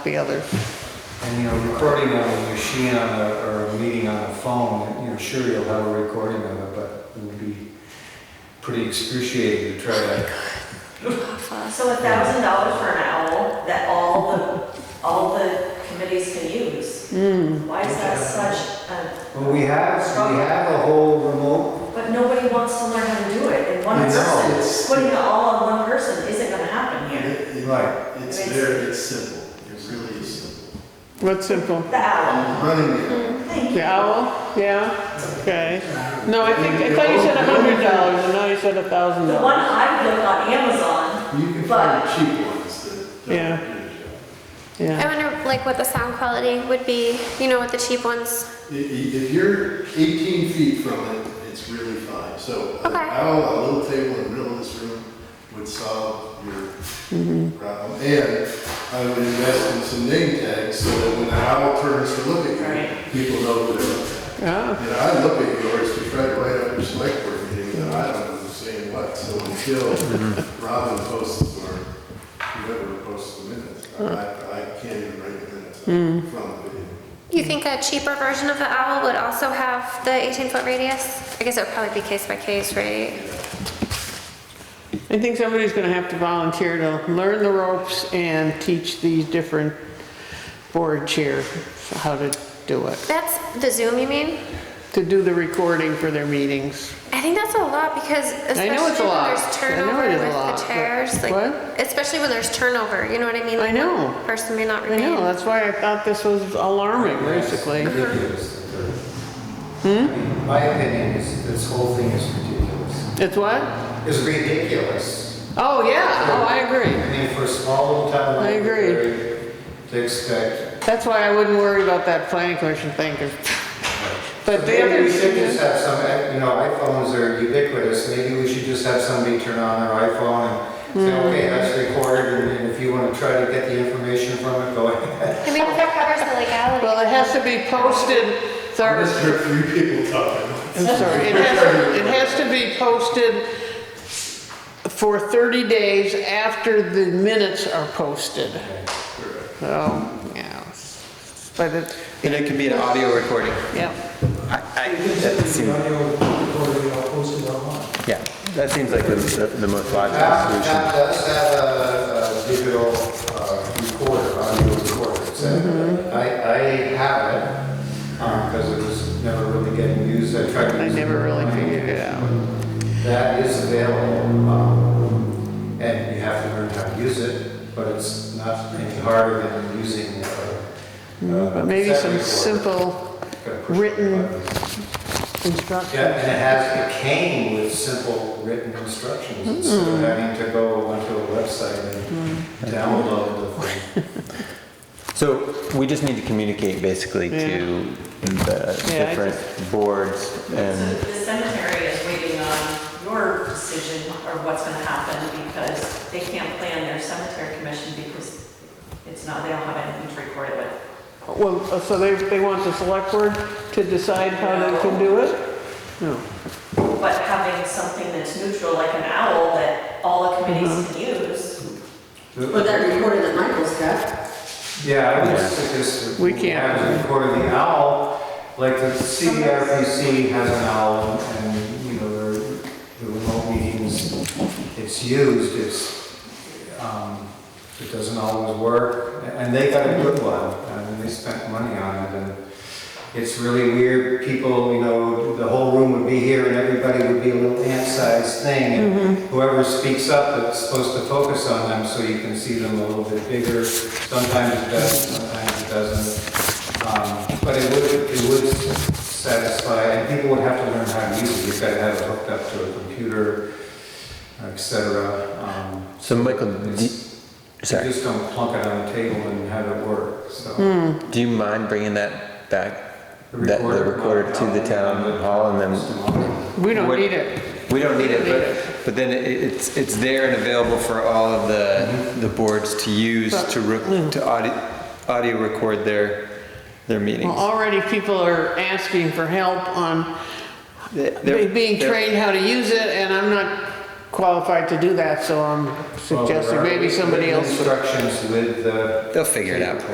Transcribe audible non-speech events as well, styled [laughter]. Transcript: the other. And, you know, recording on a machine on a, or a meeting on a phone, you know, sure you'll have a recording of it, but it would be pretty excruciating to try to. So a thousand dollars for an owl that all the, all the committees can use? Why is that such a, Well, we have, we have a whole remote, but nobody wants to learn how to do it, and one I know, person, it's- putting it all on one person isn't gonna happen here. It- it- right, It's very, it's simple, it really is simple. What's simple? The owl, Running it. thank The you. owl? Yeah? Okay. No, I think, I thought you said a hundred dollars, and now you said a thousand The one dollars. I look on Amazon, You can find cheap ones that Yeah. don't do the job. Yeah. I wonder like what the sound quality would be, you know, with the cheap ones. I- i- If you're 18 feet from it, it's really fine. So an Okay. owl, a little table in the middle of this room would solve your problem. And I would invest in some name tags so that when the owl turns to look at Right. you, people know who they're looking at. Oh, And I look at yours to try to write up your select board meeting, and I don't know who's saying what, so until Robin posts or whoever posts the minutes, I, I can't even write the minutes from the video. You think a cheaper version of the owl would also have the 18 foot radius? I guess it would probably be case by case, right? I think somebody's gonna have to volunteer to learn the ropes and teach these different board chair how to do it, That's the Zoom, you mean? to do the recording for their meetings. I think that's a lot because I especially know it's a when lot. there's I know turnover it is a with lot, the but- chairs, like What? especially when there's turnover, you know what I mean? I Like, know. one Person may not I remain. know, that's why I thought this was alarming, basically. ridiculous. Hmm? My opinion is this whole thing is ridiculous. It's what? It's ridiculous. Oh, yeah, oh, I agree. I mean, for a small little town I like agree. Woodbury, to expect. That's why I wouldn't worry about that planning commission thing, 'cause- [laughs] but the Maybe other. we should just have some, eh, you know, iPhones are ubiquitous, maybe we should just have somebody turn on their iPhone and say, okay, that's recorded, and- and if you wanna try to get the information from it, go [laughs] ahead. I mean, if that covers the legality. Well, it has to be posted, sorry, Unless there are a few people talking. I'm sorry, it has, it has to be posted for 30 days after the minutes are posted. So, yeah, but it, And it could be an audio recording. yeah, I, I, that seems, yeah, that seems like the, the the most That, logical solution. that does have a, a digital uh, recorder, audio recorder, it's a- I, I have it, um, cause it was never really getting used, I tried to I use it. never really figured it out. That is available, um, and you have to learn how to use it, but it's not any harder than using. uh, But But maybe some simple written- instruction. Yeah, and it has, it came with simple written instructions instead of having to go onto a website and download the thing. So we just need to communicate basically to the Yeah, I different boards So and, the cemetery is waiting on your decision or what's gonna happen because they can't plan their cemetery commission because it's not, they don't have anything to record it with. Well, so they, they want the select board to decide how they can do it? No. But having something that's neutral, like an owl, that all the committees can use. Or that recorder that Michael's got. Yeah, I would suggest. We can't. Have it recorded the owl, like the CRPC has an owl and, you know, the the remote meetings, it's used, it's, um, it doesn't always work. And they got a good one, and they spent money on it, and it's really weird. People, you know, the whole room would be here and everybody would be a little ant-sized thing. And whoever speaks up, it's supposed to focus on them so you can see them a little bit bigger. Sometimes it does, sometimes it doesn't. Um, But it would, it would satisfy, and people would have to learn how to use it. You've got to have it hooked up to a computer, et cetera. Um, so Michael, do, You Mm-hmm. sorry, just don't plunk it on a table and have it work, so. do you mind bringing that back? The That, the recorder- recorder to the town hall and then, We don't What- need it. we don't need it, We don't need but, but then it, it's, it's there and available for all of the, the boards to use to, re- mm. to audio, audio record their, their Well, meetings. already people are asking for help on They're- be- being they're- trained how to use it, and I'm not qualified to do that, so I'm Well, there suggesting are maybe somebody written else would Instructions with uh, the They'll figure it out.